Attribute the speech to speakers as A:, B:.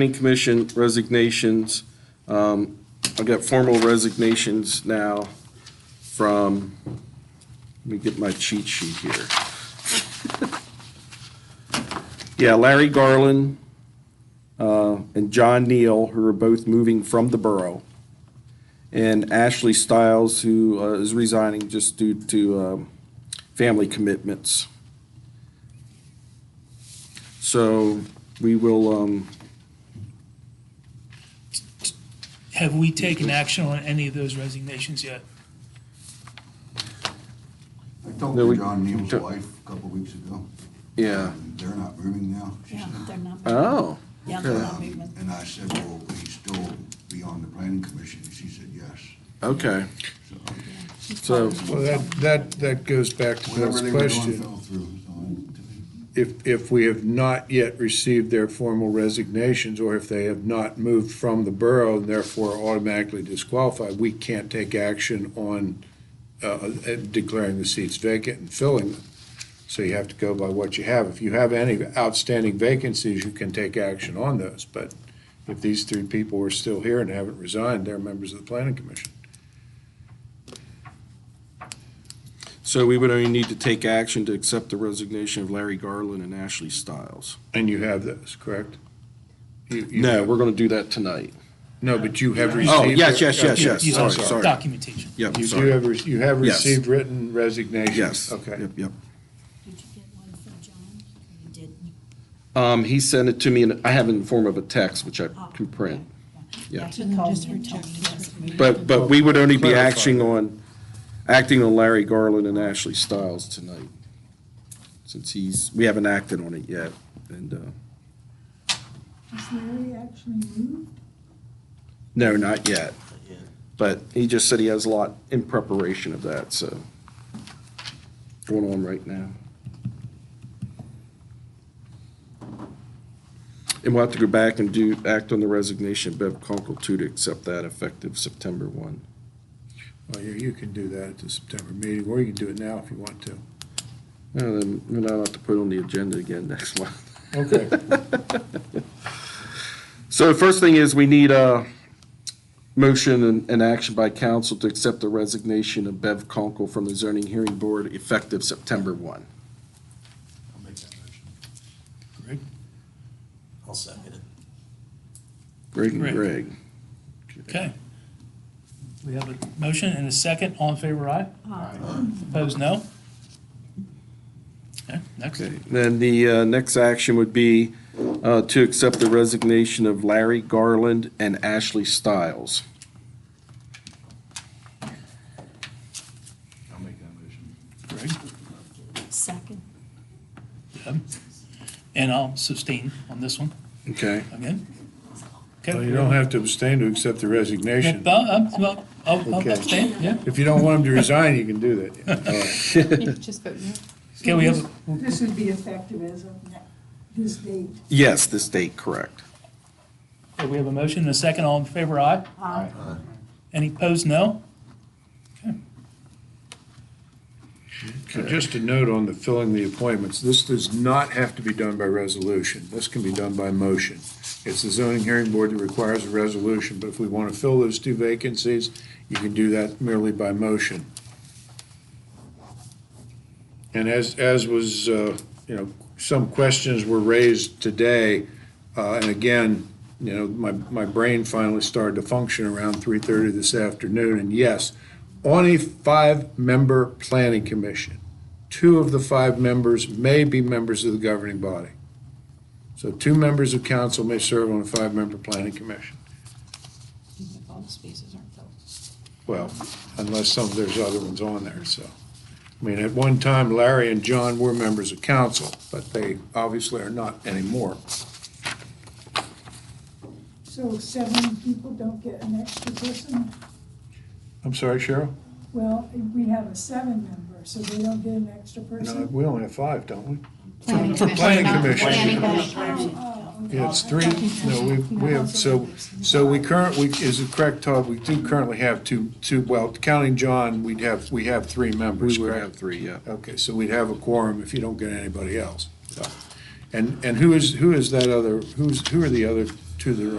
A: Planning Commission resignations. Um, I've got formal resignations now from, let me get my cheat sheet here. Yeah, Larry Garland uh, and John Neal, who are both moving from the borough. And Ashley Stiles, who uh, is resigning just due to um, family commitments. So we will, um,
B: Have we taken action on any of those resignations yet?
C: I talked
A: No, we-
C: to John Neal's
A: John-
C: wife a couple of weeks ago.
A: yeah.
C: They're not moving now. she
D: Yeah, Uh,
C: said.
D: they're not.
A: Oh,
D: Yeah, they're not
C: Um,
D: moving.
C: And I said, well, will he still be on the planning commission? She said, yes.
A: okay.
C: So
A: So-
E: Well, that, that, that goes back to
C: whatever
E: Bill's
C: they were doing
E: question.
C: fell through. so I-
E: If, if we have not yet received their formal resignations, or if they have not moved from the borough and therefore automatically disqualified, we can't take action on uh, declaring the seats vacant and filling them. So you have to go by what you have. If you have any outstanding vacancies, you can take action on those. But if these three people are still here and haven't resigned, they're members of the planning commission.
A: So we would only need to take action to accept the resignation of Larry Garland and Ashley Stiles.
E: And you have those, correct? You- you
A: No,
E: have-
A: we're going to do that tonight.
E: No, but you have
B: Oh,
E: received.
A: yes, yes, yes,
E: Okay.
A: yes.
B: You- you have
A: sorry, sorry.
B: Documentation.
A: Yep,
E: You do
A: sorry.
E: have, re- you have
A: Yes.
E: received written resignations?
A: Yes.
E: Okay.
A: Yep, yep.
D: Did you get one from John? You didn't.
A: Um, he sent it to me and I have it in the form of a text, which I
D: Oh,
A: can print. Yeah.
D: Yeah, he called me and told me he wasn't moving.
A: But, but we would only be
E: Clarify.
A: acting on, acting on Larry Garland and Ashley Stiles tonight. Since he's, we haven't acted on it yet. And, uh,
F: Is Larry actually moved?
A: no, not yet. But he just said he has a lot in preparation of that, so. Going on right now. And we'll have to go back and do, act on the resignation of Bev Conkle too to accept that effective September one.
E: Well, you, you can do that at the September meeting, or you can do it now if you want to.
A: No, then we'll not have to put it on the agenda again next month.
E: Okay.
A: So the first thing is we need a motion and, and action by council to accept the resignation of Bev Conkle from the zoning hearing board effective September one.
G: I'll make that motion.
E: Greg?
G: I'll second it.
A: Greg and
B: Greg.
A: Greg.
B: Okay. We have a motion and a second. All in favor, aye? Opposed, no? Okay, next.
A: Okay, then the uh, next action would be uh, to accept the resignation of Larry Garland and Ashley Stiles.
G: I'll make that motion.
B: Greg?
D: Second.
B: Deb? And I'll sustain on this one,
A: Okay,
B: again. Okay.
E: Well, you don't have to abstain to accept the resignation.
B: Well, I'm- well, I'll I'll
E: Okay.
B: abstain, yeah.
E: If you don't want him to resign, you can do that. All right.
H: Just vote no.
B: Okay, we have,
F: This would be effective as of ne- this date.
A: yes, this date, correct.
B: a- we have a motion and a second. All in favor, aye?
F: Aye.
B: Any opposed, no?
E: So Just a note on the filling the appointments, this does not have to be done by resolution. This can be done by motion. It's the zoning hearing board that requires a resolution, but if we want to fill those two vacancies, you can do that merely by motion. And as, as was, uh, you know, some questions were raised today, uh, and again, you know, my, my brain finally started to function around 3:30 this afternoon, and yes, on a five-member planning commission, two of the five members may be members of the governing body. So two members of council may serve on a five-member planning commission.
H: Even if all the spaces aren't filled.
E: Well, unless some, there's other ones on there, so. I mean, at one time Larry and John were members of council, but they obviously are not anymore.
F: So seven people don't get an extra person?
E: I'm sorry, Cheryl?
F: Well, we have a seven member, so they don't get an extra
E: No,
F: person?
E: we only have five, don't we?
H: Planning
E: For
H: commission.
E: planning
H: Not
E: commission.
H: planning
F: Oh,
H: commission.
F: oh, okay.
E: Yeah, it's three, no, we, we have, so, so we current, we, is it correct, Todd, we do currently have two, two, well, counting John, we'd have, we have three members,
A: We would have
E: correct?
A: three, yeah.
E: Okay, so we'd have a quorum if you don't get anybody else. So, And, and who is, who is that other, who's, who are the other to their